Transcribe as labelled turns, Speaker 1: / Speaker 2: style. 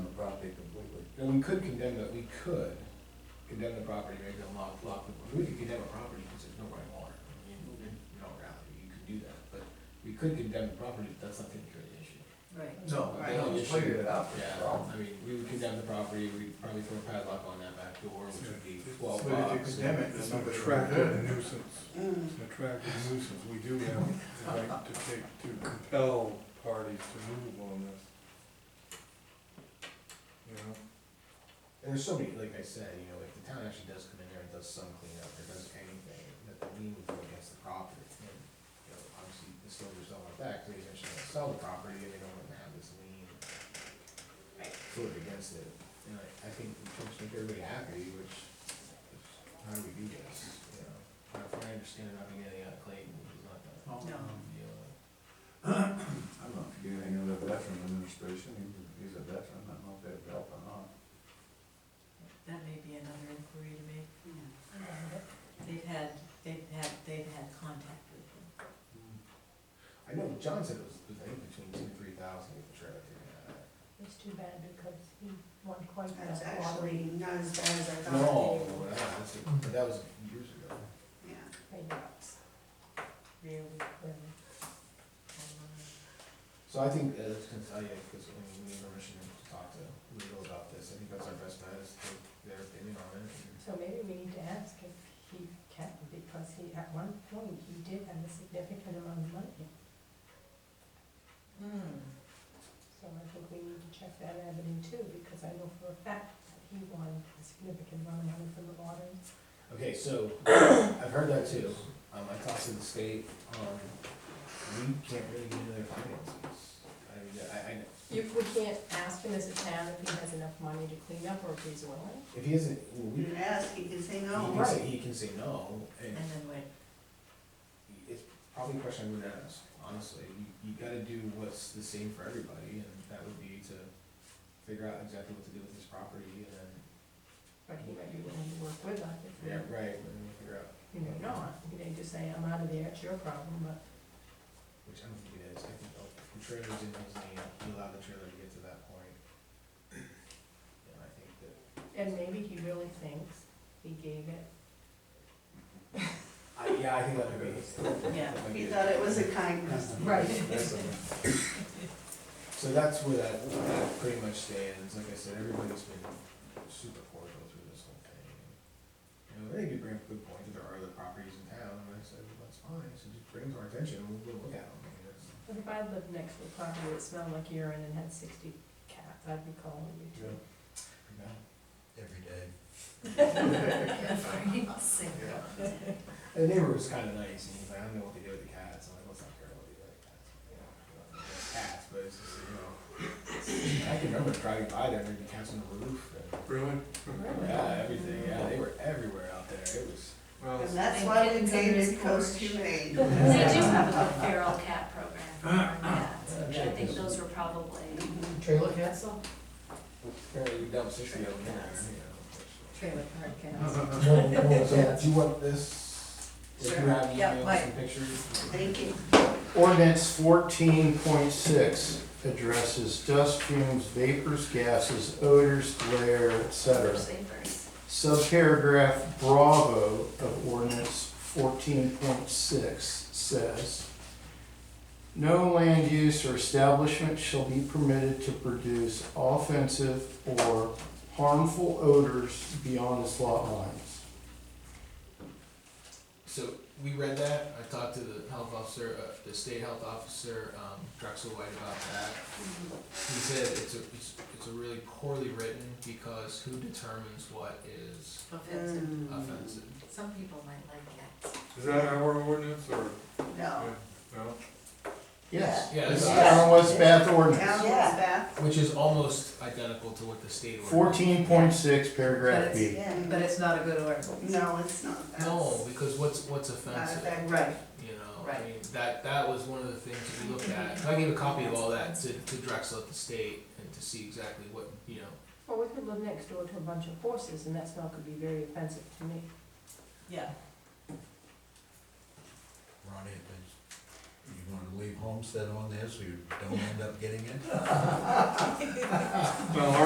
Speaker 1: Now, we could condemn that, we could condemn the property, maybe unlock, lock, the- we could condemn a property because there's no right water. I mean, in, in all reality, you could do that, but we could condemn the property, but that's not gonna cure the issue.
Speaker 2: Right.
Speaker 3: No,
Speaker 1: The
Speaker 3: I
Speaker 1: only
Speaker 3: don't
Speaker 1: issue-
Speaker 3: figure it out, that's the
Speaker 1: Yeah,
Speaker 3: problem.
Speaker 1: I mean, we would condemn the property, we'd probably throw a padlock on that back door, which would be twelve bucks.
Speaker 3: But if you condemn it,
Speaker 4: It's
Speaker 3: then
Speaker 4: an
Speaker 3: nobody will do
Speaker 4: attractive
Speaker 3: it.
Speaker 4: nuisance, it's an attractive nuisance, we do have the right to take, to compel parties to move on this. You know,
Speaker 1: And there's so many, like I said, you know, if the town actually does come in there and does some cleanup or does anything, that the lien would go against the property. And, you know, obviously, the Silvers don't want that, because they eventually want to sell the property and they don't want to have this lien sort of against it. And I, I think we should make everybody happy, which, is how do we do this, you know? Now, If I understand, I'm not gonna get any out of Clayton, which is not that
Speaker 2: No.
Speaker 1: deal.
Speaker 3: I don't know if you get any other veteran administration, He- he's a veteran, I don't know if they've helped or not.
Speaker 2: That may be another inquiry to make. They've had, they've had, they've had contact with them.
Speaker 1: I know John said it was, I think between two and three thousand, if you're trying to figure that out.
Speaker 5: It's too bad because he won quite
Speaker 6: That's
Speaker 5: that lottery.
Speaker 6: actually not as bad as I thought.
Speaker 1: No, no, Oh, that's, but that was years ago.
Speaker 6: Yeah,
Speaker 5: They nuts.
Speaker 2: Really,
Speaker 5: Really.
Speaker 2: um,
Speaker 1: So I think, uh, that's gonna tell you, because I mean, we need permission to talk to legal about this, I think that's our best bet, is to take their opinion on it. and-
Speaker 5: So maybe we need to ask if he can, because he, at one point, he did have a significant amount of money.
Speaker 2: hmm.
Speaker 5: So I think we need to check that avenue too, because I know for a fact that he won a significant amount of money from the lottery.
Speaker 1: Okay, so, I've heard that too, um, I talked to the state, um, we can't really get into their finances. I, mean, I, I, know.
Speaker 7: You, we can't ask him as a town if he has enough money to clean up or if he's willing.
Speaker 1: if he isn't, well, we,
Speaker 6: you
Speaker 1: he
Speaker 6: can ask, you can say no.
Speaker 1: can say, he can say no, and
Speaker 2: And then went,
Speaker 1: it's probably a question I would ask, honestly. You, you gotta do what's the same for everybody, and that would be to figure out exactly what to do with this property, and then,
Speaker 7: But he might be willing to work with us if
Speaker 1: yeah,
Speaker 7: we,
Speaker 1: right, and then figure out,
Speaker 7: you know, not.
Speaker 5: You may just say, I'm out of there, it's your problem, but
Speaker 1: which I don't think it is. I think, oh, the trailer's in his name, he allowed the trailer to get to that point. And I think that,
Speaker 7: And maybe he really thinks he gave it.
Speaker 1: I, yeah, I think that would be.
Speaker 2: yeah,
Speaker 1: that might
Speaker 6: He
Speaker 1: be-
Speaker 6: thought it was a kind customer.
Speaker 7: Right.
Speaker 1: That's all. So that's where that, that pretty much stands, like I said, everybody's been super cordial through this whole thing. You know, they did bring up a good point, that there are other properties in town, and I said, well, that's fine, so just bring it to our attention, and we'll go look at them. I mean, it's-
Speaker 7: But if I lived next to a property that smelled like urine and had sixty cats, I'd be calling you too.
Speaker 1: you know.
Speaker 3: Every day.
Speaker 2: every single.
Speaker 1: And the neighbor was kinda nice, and he's like, I don't know what they do with the cats, I'm like, let's not care what they do with the cats. You know, you know, it's Cats, but it's just, you know, I can remember driving by there, and the cats on the roof, and,
Speaker 4: Really?
Speaker 1: yeah, everything, yeah, they were everywhere out there, it was.
Speaker 4: Well,
Speaker 6: And that's why we
Speaker 2: Kittens
Speaker 6: painted
Speaker 2: are
Speaker 6: Coast
Speaker 2: scorched.
Speaker 6: Humane.
Speaker 2: They do
Speaker 8: They do have a good feral cat program for cats, which I think those were probably,
Speaker 7: Trailer castle?
Speaker 1: Apparently you dumped history over there, you
Speaker 7: Trailer park castle.
Speaker 1: know. So do you want this, if you
Speaker 2: Sure.
Speaker 1: have
Speaker 2: Yeah,
Speaker 1: emails
Speaker 2: like-
Speaker 1: and pictures?
Speaker 6: Thank you.
Speaker 9: Ordinance fourteen point six addresses dust fumes, vapors, gases, odors, glare, etc.
Speaker 8: savers.
Speaker 9: Subparagraph Bravo of ordinance fourteen point six says, no land use or establishment shall be permitted to produce offensive or harmful odors beyond its lot lines.
Speaker 1: So we read that, I talked to the health officer, uh, the state health officer, um, Drexel White about that. He said it's a, it's, it's a really poorly written because who determines what is
Speaker 2: Offensive.
Speaker 6: Mm,
Speaker 1: offensive?
Speaker 2: Some people might like cats.
Speaker 4: is that our ordinance or,
Speaker 6: No.
Speaker 4: no?
Speaker 9: Yes.
Speaker 1: Yeah,
Speaker 9: It's
Speaker 1: this
Speaker 6: Yeah.
Speaker 1: is,
Speaker 9: Town of West Bath
Speaker 6: Town
Speaker 9: ordinance,
Speaker 6: was back,
Speaker 1: which is almost identical to what the state. ordered.
Speaker 9: fourteen point six paragraph
Speaker 2: But
Speaker 9: B.
Speaker 6: yeah.
Speaker 2: But it's not a good ordinance.
Speaker 6: No, it's not. That's
Speaker 8: No, because what's, what's
Speaker 6: Not
Speaker 8: offensive?
Speaker 6: effective.
Speaker 2: Right,
Speaker 8: you know,
Speaker 2: Right.
Speaker 8: I mean, that, that was one of the things that we looked at. So I gave a copy of all that to, to Drexel at the state and to see exactly what, you know,
Speaker 5: Well, we could live next door to a bunch of horses, and that smell could be very offensive to me.
Speaker 2: yeah.
Speaker 3: Ronnie, you wanna leave homestead on there so you don't end up getting it?
Speaker 4: Well,